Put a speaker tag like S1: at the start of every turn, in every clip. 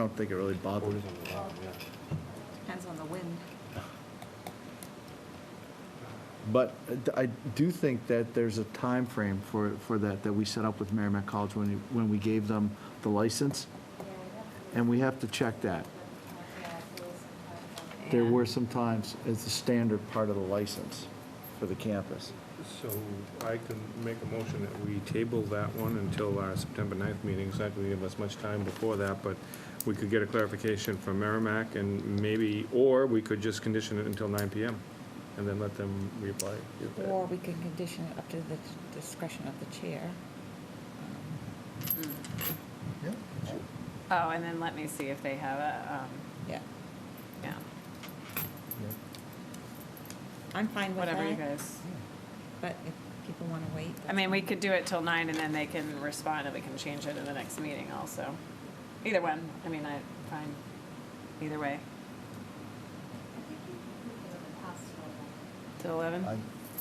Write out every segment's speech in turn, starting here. S1: I don't think it really bothers.
S2: Depends on the wind.
S1: But I do think that there's a time frame for, for that, that we set up with Merrimack College when, you- when we gave them the license, and we have to check that. There
S2: Yeah.
S1: were some times as the standard part of the license for the campus.
S3: So I can make a motion that we table that one until our September 9th meeting. It's not going to give us much time before that, but we could get a clarification from Merrimack and maybe, or we could just condition it until 9 PM and then let them reapply.
S4: Or we can condition it up to the discretion of the chair.
S5: Oh, and then let me see if they have a,
S4: Yeah,
S5: um, yeah,
S4: I'm fine with
S5: whatever you
S4: that,
S5: guys.
S4: but if people want to wait.
S5: I mean, we could do it till nine and then they can respond and we can change it in the next meeting also. Either one, I mean, I, fine, either way. Till eleven?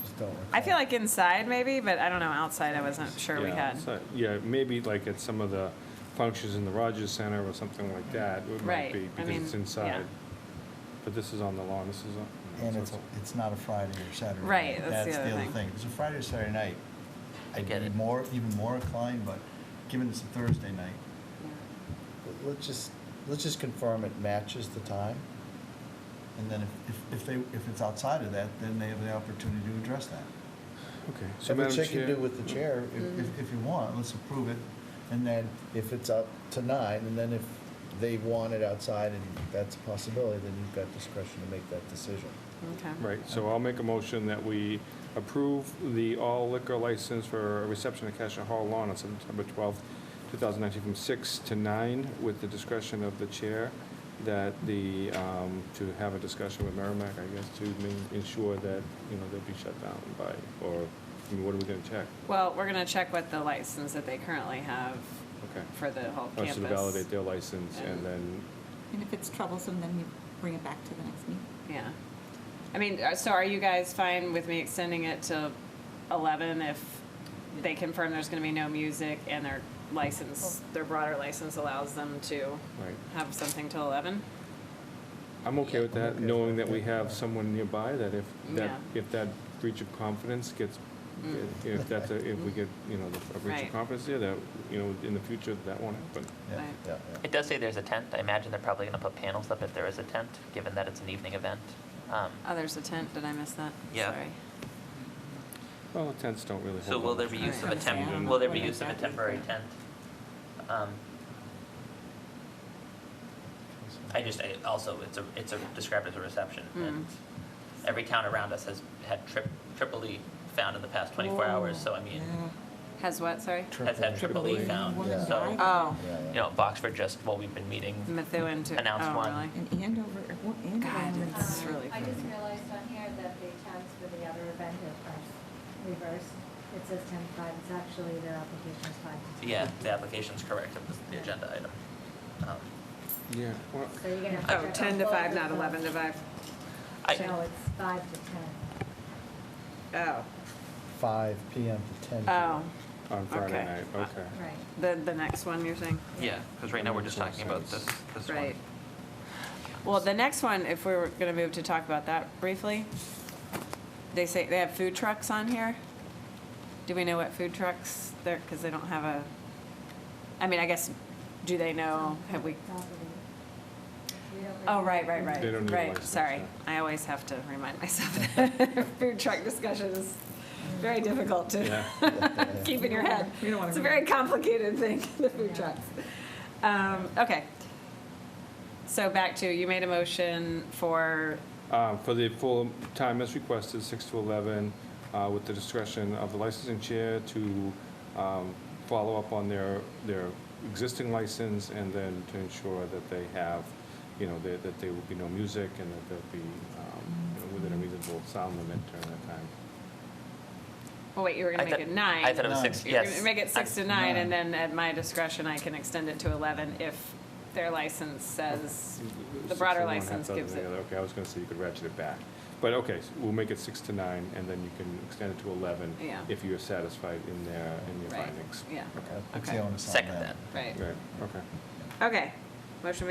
S1: just don't
S5: I feel like inside maybe, but I don't know, outside I wasn't sure we
S3: Yeah,
S5: had.
S3: so- Yeah, maybe like at some of the functions in the Rogers Center or something like that, it might
S5: Right,
S3: be,
S5: I
S3: because it's
S5: mean,
S3: inside.
S5: yeah.
S3: But this is on the lawn, this is on.
S6: And it's, it's not a Friday or Saturday. night.
S5: Right, that's the other thing.
S6: If it's a Friday or Saturday night, I'd
S5: get
S6: be
S5: it.
S6: more, even more inclined, but given it's a Thursday night,
S1: Let's just, let's just confirm it matches the time.
S6: and then if, if- if they, if it's outside of that, then they have the opportunity to address that.
S3: Okay, so Madam Chair-
S1: with the chair.
S6: If,
S5: Mm-hmm.
S6: if- if you want, let's approve it, and then,
S1: If it's up to nine, and then if they want it outside and that's a possibility, then you've got discretion to make that decision.
S5: Okay.
S3: Right, so I'll make a motion that we approve the all liquor license for a reception at Cassia Hall Lawn on September 12th, 2019, from 6 to 9, with the discretion of the chair, that the, um, to have a discussion with Merrimack, I guess, to ma- ensure that, you know, they'll be shut down by, or, I mean, what are we going to check?
S5: Well, we're gonna check what the license that they currently have
S3: Okay.
S5: for the whole
S3: Oh,
S5: campus.
S3: So to validate their license, and
S5: And-
S3: then,
S4: And if it's troublesome, then you bring it back to the next meeting.
S5: Yeah. I mean, uh, so are you guys fine with me extending it to 11 if they confirm there's going to be no music and their license, their broader license allows them to
S3: right.
S5: have something till 11?
S3: I'm okay with that,
S1: okay.
S3: knowing that we have someone nearby that if, that,
S5: Yeah.
S3: if that breach of confidence gets,
S5: Mm.
S3: if that's, a- if we get, you know, the- a breach of
S5: Right.
S3: confidence there, that, you know, in the future, that won't happen.
S6: yeah.
S5: Right.
S1: Yeah,
S7: It does say there's a tent. I imagine they're probably going to put panels up if there is a tent, given that it's an evening event. Um,
S5: Oh, there's a tent. Did I miss that?
S7: Yeah.
S5: Sorry.
S3: Well, tents don't really hold.
S7: So will
S3: up.
S7: there be use of a
S4: Alright.
S7: temp,
S4: Yeah.
S7: will there be
S4: Yeah.
S7: use of a temporary tent? Um, I just, I, also, it's a, it's a, described as a reception, and every town around us has had trip, triple E found in the past twenty-four hours, so I mean,
S5: Has what? Sorry?
S7: has had triple E
S3: Triple E.
S7: found,
S4: Woman
S7: so,
S4: died,
S5: Oh,
S7: you know, Boxford just, while we've been meeting,
S5: Methuen to,
S7: Announce
S5: oh,
S7: one.
S5: really?
S4: And Andover, well,
S5: God,
S4: Andover.
S5: it's
S4: was-
S8: Um,
S5: really
S8: I just
S5: crazy.
S8: realized on here that the times for the other event are reversed. It says ten to five, it's actually their application is five to ten.
S7: yeah, the application's correct, it was the agenda item. Um,
S3: Yeah, well,
S8: So you're gonna have to.
S5: Oh,
S8: check on
S5: 10 to
S8: both
S5: 5,
S8: of
S5: not
S8: them.
S5: 11 to 5.
S8: No,
S7: I,
S8: it's five to ten.
S5: Oh,
S1: Five PM to ten.
S5: oh,
S3: on Friday
S5: Okay. Uh,
S3: night, okay.
S8: Right.
S5: the, the next one you're saying?
S7: yeah, because right now we're just talking about this, this one.
S5: Right. Well, the next one, if we were gonna move to talk about that briefly, they say, they have food trucks on here. Do we know what food trucks they're, because they don't have a, I mean, I guess, do they know, have we,
S8: Property. We don't
S5: oh,
S8: really-
S5: right, right,
S3: They don't
S5: right,
S3: need a
S5: right,
S3: license,
S5: sorry.
S3: yeah.
S5: I always have to remind myself that food truck discussion is very difficult to
S3: Yeah,
S5: keep in your head.
S4: We don't wanna
S5: It's a very complicated thing, the food trucks. Um, okay. So back to, you made a motion for
S3: Uh, for the full time as requested, 6 to 11, uh, with the discretion of the licensing chair to um, follow up on their, their existing license and then to ensure that they have, you know, that that there will be no music and that there'll be, um, you know, within a reasonable sound limit during that time.
S5: Well, wait, you were
S7: I
S5: gonna make
S7: thought-
S5: it nine.
S7: I thought it was six,
S5: You were
S7: yes.
S5: gonna Make it six
S7: I-
S5: to nine, and then at my discretion, I can extend it to 11 if their license says, the
S3: Six
S5: broader
S3: to one, half
S5: license
S3: dozen
S5: gives
S3: the
S5: it.
S3: other. Okay, I was going to say you could ratchet it back. But okay, so we'll make it 6 to 9, and then you can extend it to 11
S5: Yeah.
S3: if you're satisfied in their, in your
S5: Right,
S3: findings.
S5: yeah,
S6: Puts the
S5: Okay.
S6: onus on
S7: Second
S6: them.
S7: then.
S5: right.
S3: Right, okay.
S5: Okay. Motion made